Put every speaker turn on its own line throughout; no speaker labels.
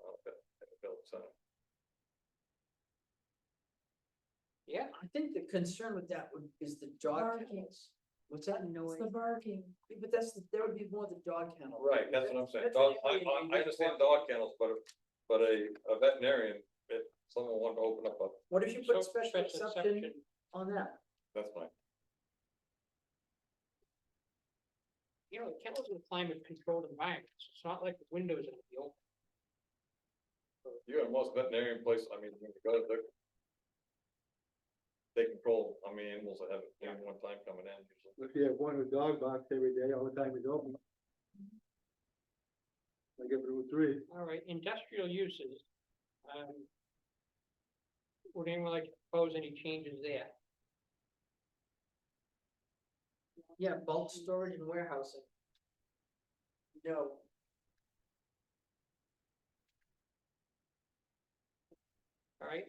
uh,
I think the concern with that would, is the dog,
Barking, it's
what's that noise?
the barking.
Yeah, But that's, the- there would be more the dog kennel.
Right, that's what I'm saying,
That's
dog,
the
I,
only
I-
thing
I
that's
understand
walking.
dog kennels, but, if- but a, a veterinarian, if someone wanted to open up a,
What if you put
So,
special
special
exception
exception.
on that?
that's fine.
You know, the kennels in climate controlled environments, it's not like the windows in the open.
You and most veterinarian places, I mean, when you go to the. They control how many animals they have at any one time coming in, usually.
If you have one with dog box every day, all the time it's open. I give it a three.
All right, industrial uses. um, Would anyone like to propose any changes there?
Yeah, bulk storage and warehousing. No,
All right,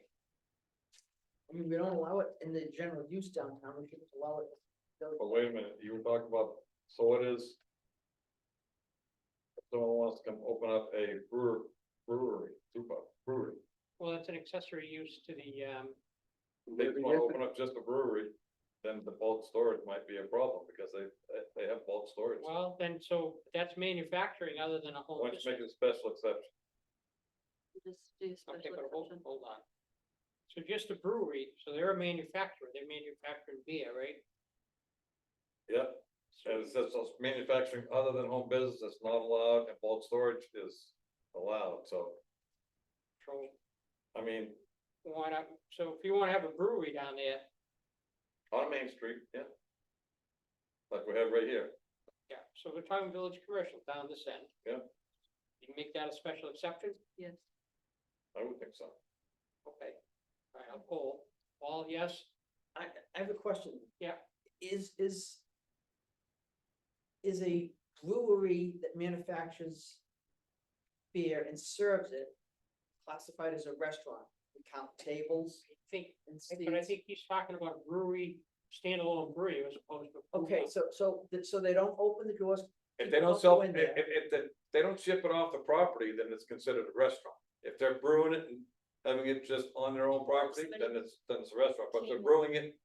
I mean, we don't allow it in the general use downtown, we should allow it.
but wait a minute, you were talking about, so it is. if Someone wants to come open up a brewer, brewery, super brewery,
well, that's an accessory use to the, um,
they
Maybe
wanna
if-
open up just a brewery. Then the bulk storage might be a problem, because they, they- they have bulk storage, why
well, then, so that's manufacturing other than a whole.
don't you make it a special exception?
Just do special
Okay, but hold,
exception.
hold on. So just a brewery, so they're a manufacturer, they're manufacturing beer, right?
Yeah,
So-
and it says those manufacturing other than home business is not allowed and bulk storage is allowed, so,
so
I mean,
Why not, so if you wanna have a brewery down there,
on Main Street, yeah. Like we have right here,
yeah, so we're talking village commercial down this end.
Yeah.
You can make that a special exception,
Yes,
I would think so.
okay, alright, I'll poll, all yes,
I, I have a question.
Yeah.
Is, is. Is a brewery that manufactures beer and serves it classified as a restaurant? We count tables
I think,
and
but I
seats.
think he's talking about brewery, standalone brewery as opposed to. food
Okay,
truck.
so, so, th- so they don't open the doors,
If they don't
People go
sell,
in
if,
there.
if, if they- they don't ship it off the property, then it's considered a restaurant. If they're brewing it and having it just on their own property, then it's, then it's a restaurant, but if they're brewing it.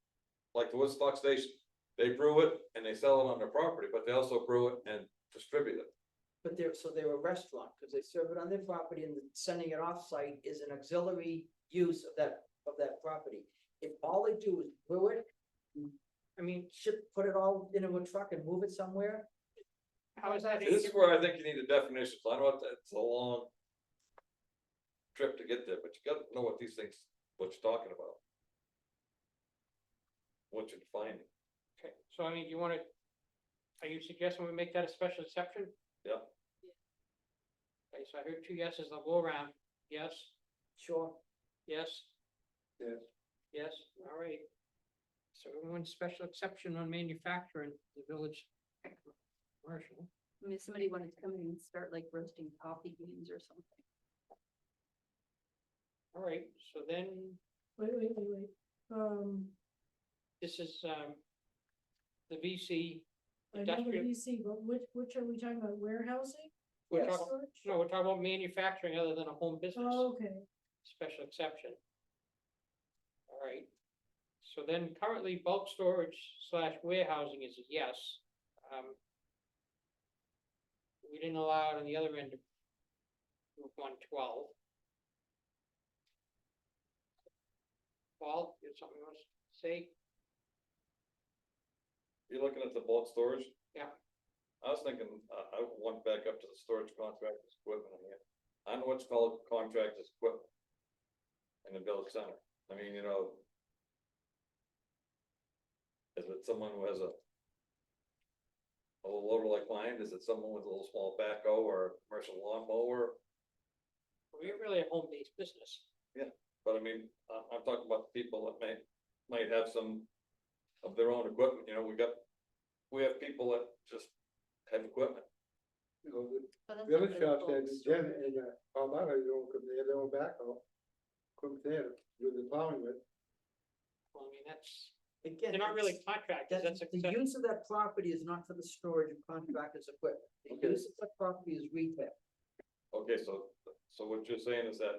Like the Woodstock Station, they brew it and they sell it on their property, but they also brew it and distribute it.
but they're, so they're a restaurant, because they serve it on their property and sending it off-site is an auxiliary use of that, of that property. If all they do is brew it,
I mean,
ship, put it all into a truck and move it somewhere,
how is that? any
This is
different?
where I think you need a definition, so I know it's- it's a long. Trip to get there, but you gotta know what these things, what you're talking about. What you're defining,
Okay, so I mean, you wanna, are you suggesting we make that a special exception?
Yeah.
Okay, so I heard two yeses, I'll go around, yes,
sure.
yes,
Yes.
yes, all right. So one special exception on manufacturing, the village commercial.
I mean, if somebody wanted to come in and start like roasting coffee beans or something.
All right, so then
Wait, wait, wait, wait. Um,
this is, um, the VC,
I know the
Industrial.
DC, but which, which are we talking about? Warehousing?
we're
Yes.
talking, no, we're talking about manufacturing other than a home business.
Oh, Okay.
special exception. All right, so then currently bulk storage slash warehousing is a yes. Um, We didn't allow it on the other end of Route one twelve. Paul, you have something you want to say?
you're looking at the bulk storage?
Yeah.
I was thinking, uh, I, I went back up to the storage contractors equipment again, I know what's called contractors equipment. In the village center, I mean, you know. Is it someone who has a? A little loader like mine, is it someone with a little small backhoe or a commercial lawnmower?
We're really a home-based business.
But I mean, I'm, I'm talking about the people that may, might have some of their own equipment, you know, we got, we have people that just have equipment.
You know, the
But that's not
Village
really
shops
bulk
had the gym
storage.
and, uh, all my, they don't come, they have their own backhoe. Come there, do the plowing with.
Well, I mean, that's,
Again.
they're not really
it's-
contractors,
That,
that's a,
the use of that property is not for the storage of contractors' equipment. The
Okay.
use of that property is retail.
Okay, so, so what you're saying is that